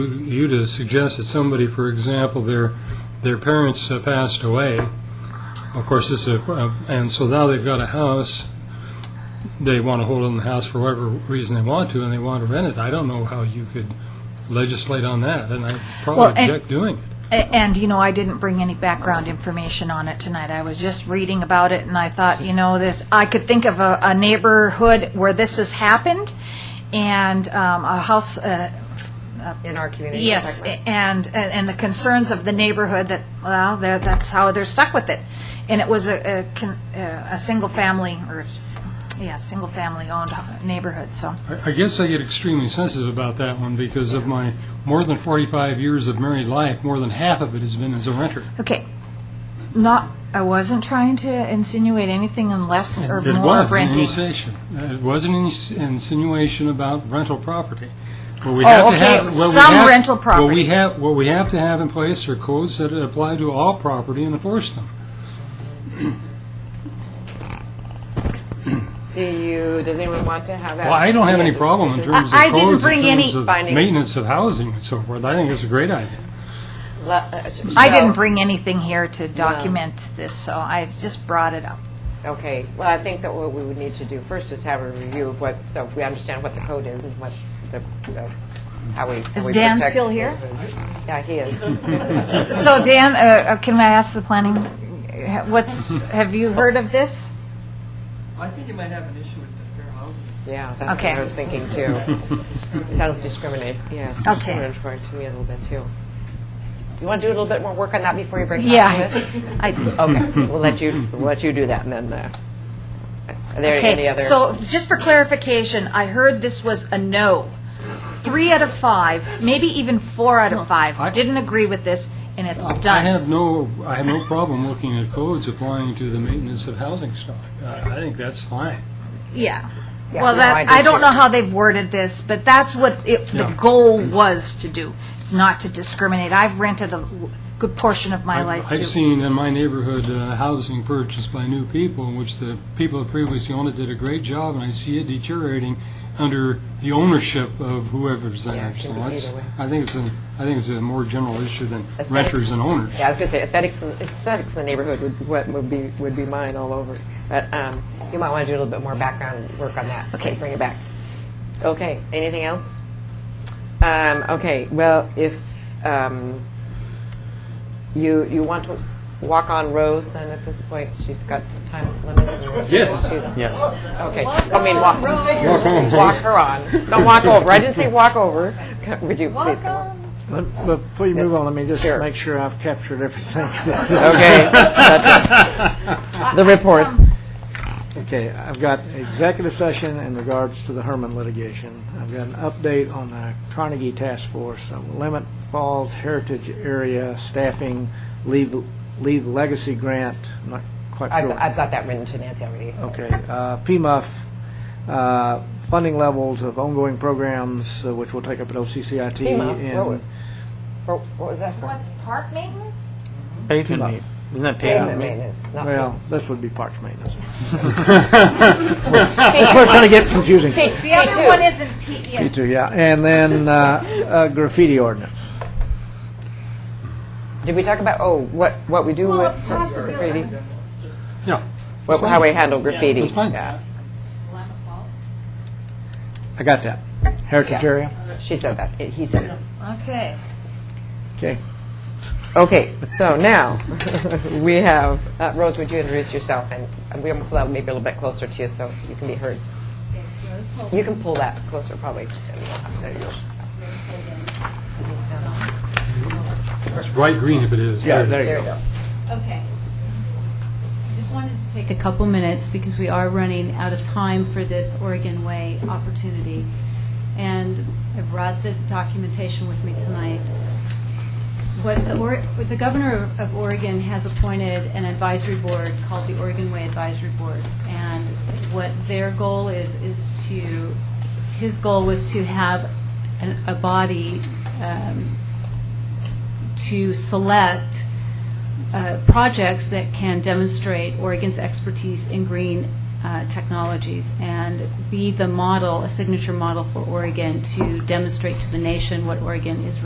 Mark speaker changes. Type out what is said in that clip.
Speaker 1: you to suggest that somebody, for example, their, their parents uh, passed away, of course, this is, a- uh, and so now they've got a house, they want to hold on the house for whatever reason they want to, and they want to rent it. I don't know how you could legislate on that, and I probably
Speaker 2: Well, and-
Speaker 1: object doing it.
Speaker 2: A- And, you know, I didn't bring any background information on it tonight. I was just reading about it and I thought, you know, this, I could think of a, a neighborhood where this has happened and um, a house, uh,
Speaker 3: in our community.
Speaker 2: yes, a- and, and and the concerns of the neighborhood that, well, they're- that's how they're stuck with it. And it was a, a, con- a a single family or, s- yeah, single family owned neighborhood, so.
Speaker 1: I- I guess I get extremely sensitive about that one because of my more than 45 years of married life, more than half of it has been as a renter.
Speaker 2: Okay, not, I wasn't trying to insinuate anything unless or
Speaker 1: It
Speaker 2: more
Speaker 1: was an
Speaker 2: renting.
Speaker 1: insinuation. Uh, It was an ins- insinuation about rental property. What we
Speaker 2: Oh,
Speaker 1: have to
Speaker 2: okay,
Speaker 1: have- what we
Speaker 2: some
Speaker 1: have-
Speaker 2: rental
Speaker 1: What we
Speaker 2: property.
Speaker 1: have, what we have to have in place are codes that apply to all property and enforce them.
Speaker 3: Do you, does anyone want to have that?
Speaker 1: Well, I don't have any problem in terms of
Speaker 2: I- I didn't
Speaker 1: codes, in
Speaker 2: bring any
Speaker 1: terms of
Speaker 3: finding-
Speaker 1: maintenance of housing and so forth. I think it's a great idea.
Speaker 3: Le- uh, sh-
Speaker 2: I
Speaker 3: so-
Speaker 2: didn't bring anything here to document this, so I just brought it up.
Speaker 3: Okay, well, I think that what we would need to do first is have a review of what, so we understand what the code is and what the, the- how we. how
Speaker 2: Is
Speaker 3: we
Speaker 2: Dan
Speaker 3: protect-
Speaker 2: still here?
Speaker 3: Yeah, he is.
Speaker 2: So Dan, uh, uh, can I ask the planning, uh, what's, have you heard of this?
Speaker 4: I think you might have an issue with the fair housing.
Speaker 3: Yeah, that's what
Speaker 2: Okay.
Speaker 3: I was thinking too. Sounds discriminate, yes.
Speaker 2: Okay.
Speaker 3: Discriminatory to me a little bit too. You want to do a little bit more work on that before you break it
Speaker 2: Yeah.
Speaker 3: up to us?
Speaker 2: I
Speaker 3: Okay, we'll let you, we'll let you do that and then, uh, are there any
Speaker 2: Okay,
Speaker 3: other?
Speaker 2: so just for clarification, I heard this was a no. Three out of five, maybe even four out of
Speaker 1: I-
Speaker 2: five, didn't agree with this, and it's
Speaker 1: I
Speaker 2: done.
Speaker 1: have no, I have no problem looking at codes applying to the maintenance of housing stock. I I think that's fine.
Speaker 2: Yeah.
Speaker 3: Yeah,
Speaker 2: Well,
Speaker 3: no, I
Speaker 2: that,
Speaker 3: do
Speaker 2: I don't
Speaker 3: too.
Speaker 2: know how they've worded this, but that's what it, the
Speaker 1: Yeah.
Speaker 2: goal was to do. It's not to discriminate. I've rented a l- good portion of my
Speaker 1: I've-
Speaker 2: life
Speaker 1: I've
Speaker 2: too.
Speaker 1: seen in my neighborhood uh, housing purchased by new people, in which the people that previously owned it did a great job, and I see it deteriorating under the ownership of whoever's
Speaker 3: Yeah,
Speaker 1: there.
Speaker 3: it
Speaker 1: So
Speaker 3: can be
Speaker 1: that's-
Speaker 3: either way.
Speaker 1: I think it's a, I think it's a more general issue than
Speaker 3: Aesthetics.
Speaker 1: renters and owners.
Speaker 3: Yeah, I was going to say aesthetics, aesthetics in the neighborhood would, what would be, would be mine all over. But um, you might want to do a little bit more background work on that. Okay. Bring it back. Okay, anything else? Um, okay, well, if um, you, you want to walk on Rose, then at this point, she's got time limits. and-
Speaker 1: Yes.
Speaker 5: Yes.
Speaker 3: Okay, I mean, walk, walk her on. Don't walk over. I didn't say walk over. Would you please come on?
Speaker 5: But but before you move on, let me just
Speaker 3: Sure.
Speaker 5: make sure I've captured everything.
Speaker 3: Okay. That's it. The reports.
Speaker 5: Okay, I've got executive session in regards to the Herman litigation. I've got an update on the Carnegie Task Force, uh, Lemon Falls Heritage Area Staffing Leave Leave Legacy Grant, I'm not quite
Speaker 3: I've,
Speaker 5: sure.
Speaker 3: I've got that written to Nancy already.
Speaker 5: Okay, uh, PMUF, uh, funding levels of ongoing programs, uh, which we'll take up at OCCIT.
Speaker 3: PMUF,
Speaker 5: in-
Speaker 3: what was- For, what was that for?
Speaker 2: park maintenance?
Speaker 5: Pavement ma-
Speaker 6: Isn't that
Speaker 3: Pavement maintenance, not
Speaker 5: Well, this would be parks maintenance. That's where it's going to get confusing.
Speaker 3: P,
Speaker 2: The other one isn't P, yeah.
Speaker 5: You too, yeah. And then uh, uh, graffiti ordinance.
Speaker 3: Did we talk about, oh, what, what we do with graffiti?
Speaker 1: Yeah.
Speaker 3: What, how we handle graffiti?
Speaker 1: That's fine.
Speaker 3: Yeah,
Speaker 5: I got that. Heritage
Speaker 3: Yeah.
Speaker 5: area?
Speaker 3: She said that, It- he said it.
Speaker 2: Okay.
Speaker 5: Okay.
Speaker 3: Okay, so now, we have, uh, Rose, would you introduce yourself? And and we're, well, maybe a little bit closer to you, so you can be heard. You can pull that closer, probably. There you go.
Speaker 1: It's bright green if it is.
Speaker 5: Yeah,
Speaker 1: it
Speaker 5: there
Speaker 1: is.
Speaker 5: you
Speaker 3: There
Speaker 5: go.
Speaker 3: you go.
Speaker 7: Okay. I Just wanted to take a couple minutes because we are running out of time for this Oregon Way opportunity. And I brought the documentation with me tonight. What the, Ore- what the governor of Oregon has appointed an advisory board called the Oregon Way Advisory Board. And what their goal is, is to, his goal was to have an- a body um, to select uh, projects that can demonstrate Oregon's expertise in green uh, technologies and be the model, a signature model for Oregon to demonstrate to the nation what Oregon is